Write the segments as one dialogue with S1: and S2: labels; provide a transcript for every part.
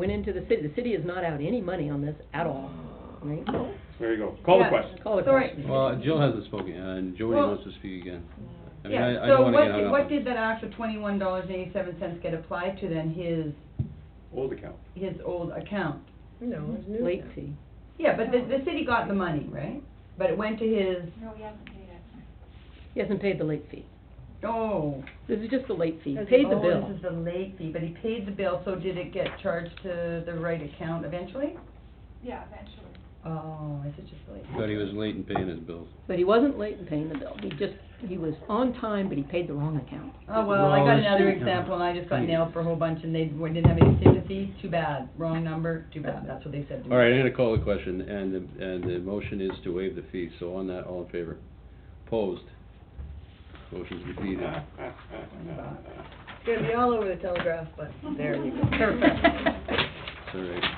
S1: went into the city, the city has not out any money on this at all, right?
S2: There you go. Call the
S3: Yeah.
S2: question.
S1: Call the
S3: Sorry.
S1: question.
S4: Well, Jill hasn't spoken, yet, and Jody
S3: Well-
S4: wants to speak again. I mean,
S3: Yeah,
S4: I, I
S3: so
S4: don't
S3: what
S4: wanna get hung
S3: did,
S4: up
S3: what
S4: on-
S3: did that extra twenty-one dollars and eighty-seven cents get applied to then, his,
S2: Old account.
S3: his old account?
S5: No, it's new.
S1: Late
S5: now.
S1: fee.
S3: Yeah, but the, the city got the money, right? But it went to his,
S6: No, he hasn't paid it.
S1: He hasn't paid the late fee.
S3: oh.
S1: This is just the late fee. He
S5: Okay.
S1: paid the
S3: Oh, this
S1: bill.
S3: is the late fee, but he paid the bill, so did it get charged to the right account eventually?
S6: Yeah, eventually.
S3: Oh, is it just late?
S4: But he was late in paying his bills.
S1: But he wasn't late in paying the bill. He just, he was on time, but he paid the wrong account.
S3: Oh, well, I
S4: Well,
S3: got
S4: it's-
S3: another example, and I just got nailed for a whole bunch, and they didn't have any sympathy, too bad, wrong number, too bad, that's what they said to me.
S4: All right, I'm gonna call the question, and the, and the motion is to waive the fee, so on that, all in favor? Opposed? Motion's defeated.
S5: It's gonna be all over the telegraph, but there you go.
S4: It's all right.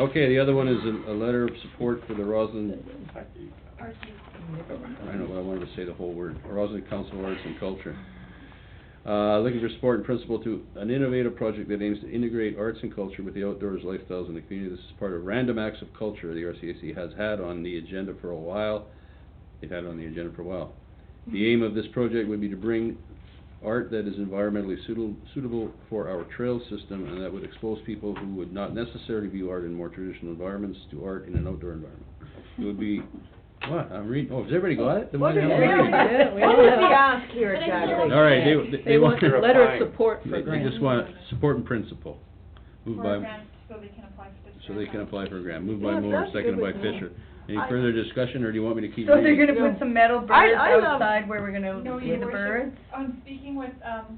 S4: Okay, the other one is a, a letter of support for the Roslyn, I don't know, but I wanted to say the whole word, Roslyn Council of Arts and Culture. Uh, looking for support and principle to an innovative project that aims to integrate arts and culture with the outdoors lifestyles in the community. This is part of Random Acts of Culture the RCAC has had on the agenda for a while. They've had it on the agenda for a while. The aim of this project would be to bring art that is environmentally suitable, suitable for our trail system and that would expose people who would not necessarily view art in more traditional environments to art in an outdoor environment. It would be, what, I'm reading, oh, has everybody got it? Then why
S5: What is
S4: the hell am I
S5: it?
S4: reading it?
S1: We all
S5: What was the
S1: have-
S5: ask here
S6: But I feel like-
S5: exactly?
S4: All right, they, they-
S1: They want a
S2: They're
S1: letter of
S2: applying.
S1: support
S4: They
S1: for
S4: they
S1: grants.
S4: just want support and principle. Moved
S6: For a
S4: by,
S6: grant, so they can apply for this.
S4: so they can
S6: grant.
S4: apply for a grant. Moved by
S5: Yeah,
S4: Moore,
S5: that's good
S4: seconded by
S5: with me.
S4: Fisher. Any
S5: I-
S4: further discussion, or do you want me to keep
S3: So they're
S4: reading?
S3: gonna put some metal
S5: I-
S3: birds
S5: I love-
S3: outside where we're gonna
S6: No,
S3: see
S6: your
S3: the birds?
S6: worship, I'm speaking with, um,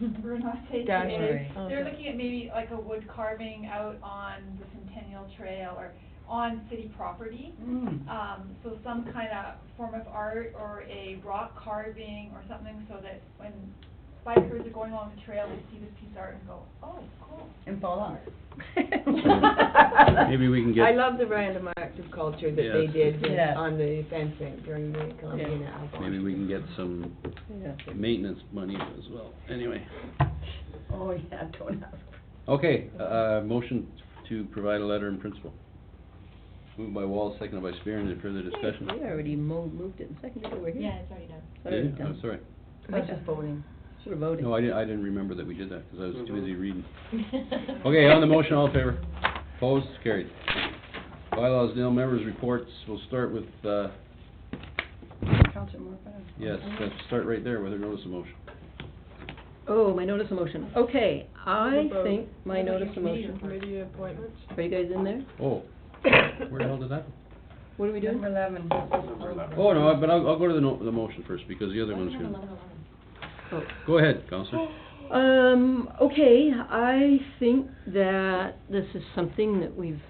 S6: Renate
S3: Dash
S6: today.
S5: Marie.
S6: They're
S5: Okay.
S6: looking at maybe like a wood carving out on the Centennial Trail or on city property.
S3: Mm.
S6: Um, so some kind of form of art or a rock carving or something so that when bikers are going along the trail, they see this piece of art and go, oh, cool.
S3: And fall off.
S4: Maybe we can get.
S5: I love the random act of culture that they
S4: Yes.
S5: did with-
S3: Yeah.
S5: on the fencing during the Columbian Alpha.
S4: Maybe we can get some
S1: Yeah.
S4: maintenance money as well, anyway.
S3: Oh, yeah, don't ask.
S4: Okay, uh, motion to provide a letter in principle. Moved by Wall, seconded by Spear, any further discussion?
S1: We already mo- moved it and seconded it. We're here.
S6: it's already done.
S1: It's already
S4: Did you?
S1: done.
S4: Oh, sorry.
S3: That's just voting.
S1: Should have voted.
S4: No, I didn't, I didn't remember that we did that, because I was too
S2: Mhm.
S4: busy reading. Okay, on the motion, all in favor? Opposed, carried. Bylaws, Nil members' reports, we'll start with, uh,
S3: Counselor Morfett?
S4: yes,
S1: Mm-hmm.
S4: let's start right there with her notice of motion.
S1: Oh, my notice of motion. Okay, I
S5: Vote.
S1: think my notice of motion.
S5: Committee appointments?
S1: Are you guys in there?
S4: Oh, where the hell did that?
S1: What are we doing?
S3: Number eleven.
S2: Number 11.
S4: Oh, no, I- but I'll, I'll go to the no, the motion first, because the other one's gonna,
S1: Oh.
S4: go ahead, Counselor.
S1: Um, okay, I think that this is something that we've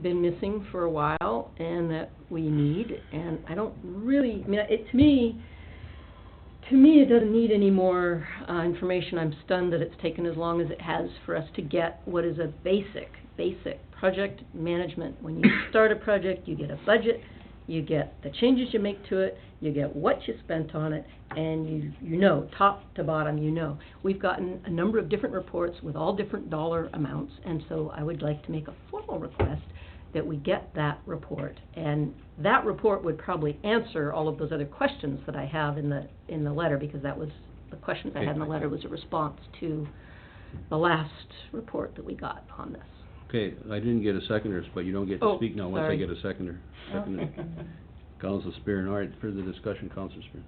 S1: been missing for a while and that we need, and I don't really, I mean, it, to me, to me, it doesn't need any more, uh, information. I'm stunned that it's taken as long as it has for us to get what is a basic, basic project management. When you start a project, you get a budget, you get the changes you make to it, you get what you spent on it, and you, you know, top to bottom, you know. We've gotten a number of different reports with all different dollar amounts, and so I would like to make a formal request that we get that report. And that report would probably answer all of those other questions that I have in the, in the letter, because that was, the question I had in the letter was a response to the last report that we got on this.
S4: Okay, I didn't get a seconder, but you don't get to
S1: Oh,
S4: speak now once I
S1: sorry.
S4: get a seconder. Seconder. Counselor Spear, all right, further discussion, Counselor Spear.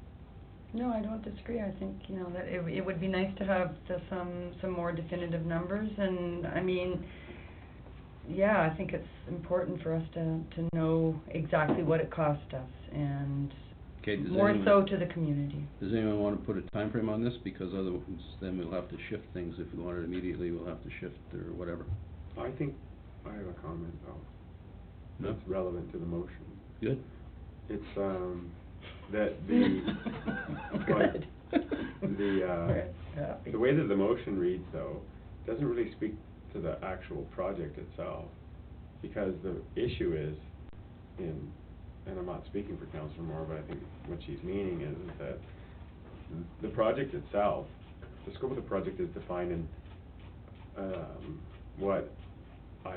S3: No, I don't disagree. I think, you know, that it, w- it would be nice to have the, some, some more definitive numbers and, I mean, yeah, I think it's important for us to, to know exactly what it cost us and
S4: Okay, does
S3: more
S4: anyone-
S3: so to the community.
S4: Does anyone want to put a time frame on this? Because otherwise, then we'll have to shift things. If we want it immediately, we'll have to shift or whatever.
S2: I think I have a comment though, that's relevant to the motion.
S4: Good?
S2: It's, um, that the,
S3: Good.
S2: the, uh,
S3: Yeah.
S2: the way that the motion reads though, doesn't really speak to the actual project itself. Because the issue is in, and I'm not speaking for Counselor Moore, but I think what she's meaning is is that the project itself, the scope of the project is defined in, um, what